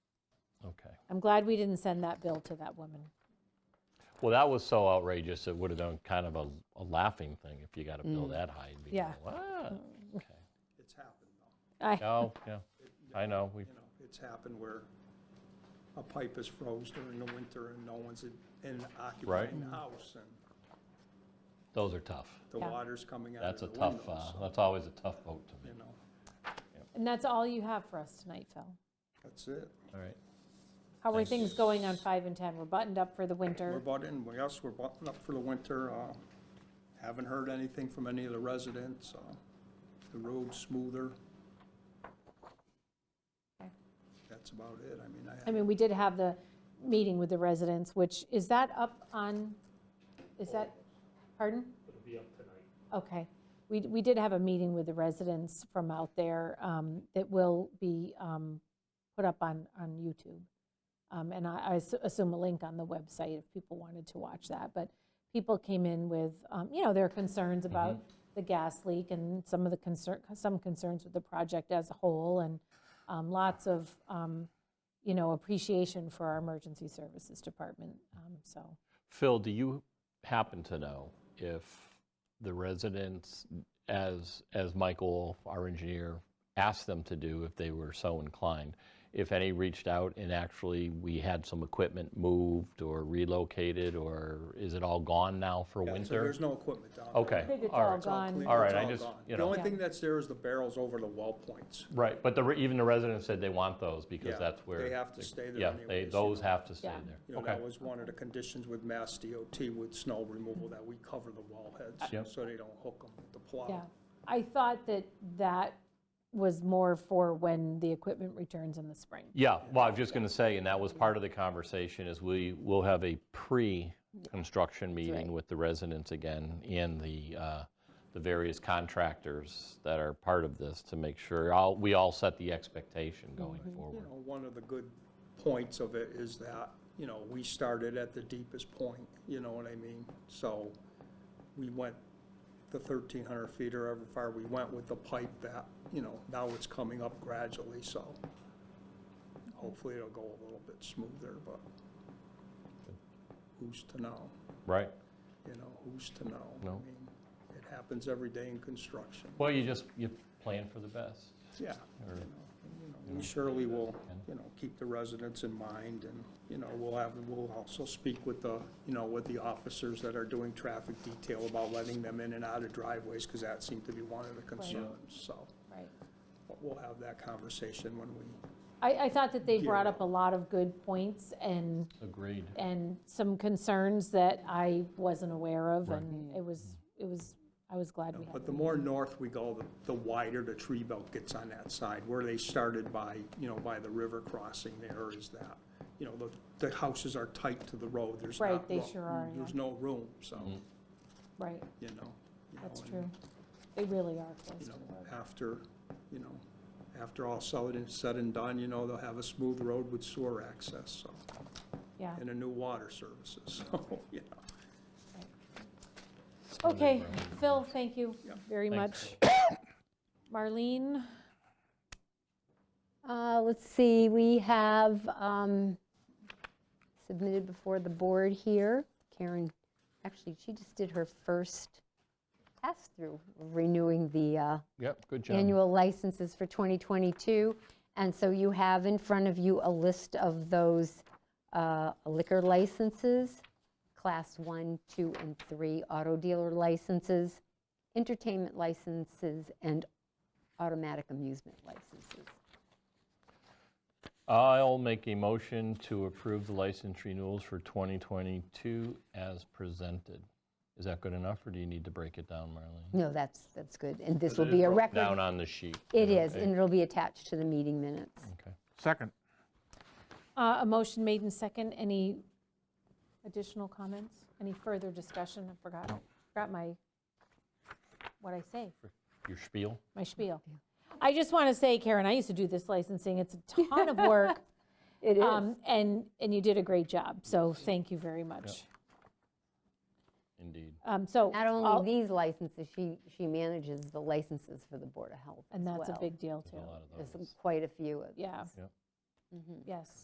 I'm glad we didn't send that bill to that woman. Well, that was so outrageous, it would have done kind of a a laughing thing if you got a bill that high. You'd be Mm. Yeah. going, "What?" Okay. It's happened, though. I, No, yeah, I know, we, You know, it's happened where a pipe is froze during the winter and no one's in- in occupying the house and those are tough. the Yeah. water's coming out of That's the a tough, windows. uh, so, that's always a tough vote to me. You know, and that's all you have for us tonight, Phil. that's it. All right, How are Thanks. things going on 5 and 10? We're buttoned up for the We're winter. bought in, we also, we're buttoned up for the winter. uh, Haven't heard anything from any of the residents. uh, The road's smoother. Okay. That's about it. I mean, I I haven't mean, we did have the meeting with the residents, which, is that up on, is that, pardon? It'll be up tonight. Okay. We, we did have a meeting with the residents from out there um, that will be um, put up on, on YouTube. Um, And I I s- assume a link on the website if people wanted to watch that. But people came in with, um, you know, their concerns about the gas leak and some of the concern, some concerns with the project as a whole and um, lots of, um, you know, appreciation for our emergency services department, um, so. Phil, do you happen to know if the residents, as, as Michael, our engineer, asked them to do if they were so inclined, if any reached out and actually we had some equipment moved or relocated, or is it all gone now for Yeah, so winter? There's no equipment down there. Okay, I think it's all all right. It's all gone. clean. All right, I It's just, gone. you The know. only Yeah. thing that's there is the barrels over the well points. Right, but the, re- even the residents said they want those because Yeah, that's where. they have to stay there Yeah, they, anyways, you those know. have to stay Yeah. You there. know, Okay, that was one of the conditions with Mass DOT with snow removal, that we cover the wall Yep. heads so they don't hook them with the Yeah, plow. I thought that that was more for when the equipment returns in the spring. yeah, well, I was just going to say, and that was part of the conversation, is we will have a pre-construction right. meeting with the residents again and the, uh, the various contractors that are part of this to make sure, all, we all set the expectation going You Mm-hmm. forward. know, one of the good points of it is that, you know, we started at the deepest point, you know what I mean? So we went the 1,300 feet or however far we went with the pipe that, you know, now it's coming up gradually, so hopefully it'll go a little bit smoother, but who's to know? Right, You know, who's to know? I No. mean, It happens every day in construction. well, you just, you plan for the best. Yeah. you know, you know, We surely will, you know, keep the residents in mind and, you know, we'll have, we'll also speak with the, you know, with the officers that are doing traffic detail about letting them in and out of driveways because that seemed to be one of the concerns, so. Right. But we'll have that conversation when we, I, I thought that they Yeah. brought up a lot of good points and, Agreed. and some concerns that I wasn't aware of, and it was, it was, I was glad we had. but the more north we go, the- the wider the tree belt gets on that side. Where they started by, you know, by the river crossing there is that, you know, the, the houses are tight to the road. There's Right, not they ro- sure are, yeah. There's no room, so. Right, you know. you that's know, true. and, They really are close You to know, the road. after, you know, after all said and said and done, you know, they'll have a smooth road with sewer access, so, Yeah. and a new water services, so, you know. Okay, Phil, thank you Yeah. very much. Thanks. Marlene, Uh, Let's see, we have um, submitted before the board here, Karen, actually, she just did her first pass-through of renewing the uh, Yep, good job. annual licenses for 2022. And so you have in front of you a list of those uh, liquor licenses, Class 1, 2, and 3 auto dealer licenses, entertainment licenses, and automatic amusement licenses. I'll make a motion to approve the license renewals for 2022 as presented. Is that good enough, or do you need to break it down, Marlene? No, that's, that's good. And this will be a record. Down on the sheet. It is, Okay, and it'll be attached to the meeting minutes. Okay. Second. uh, a motion made in second. Any additional comments? Any further discussion? I forgot, forgot my, what I say. Your spiel? my spiel. I just want to say, Karen, I used to do this licensing. It's a ton of work. Mm. It um, And, and you did a great job, so thank you very much. Indeed. Um, So, Not all- only these licenses, she, she manages the licenses for the Board of Health as and that's a well. big deal, There's a too. lot of There's those. quite a few of Yeah, Yep. yes.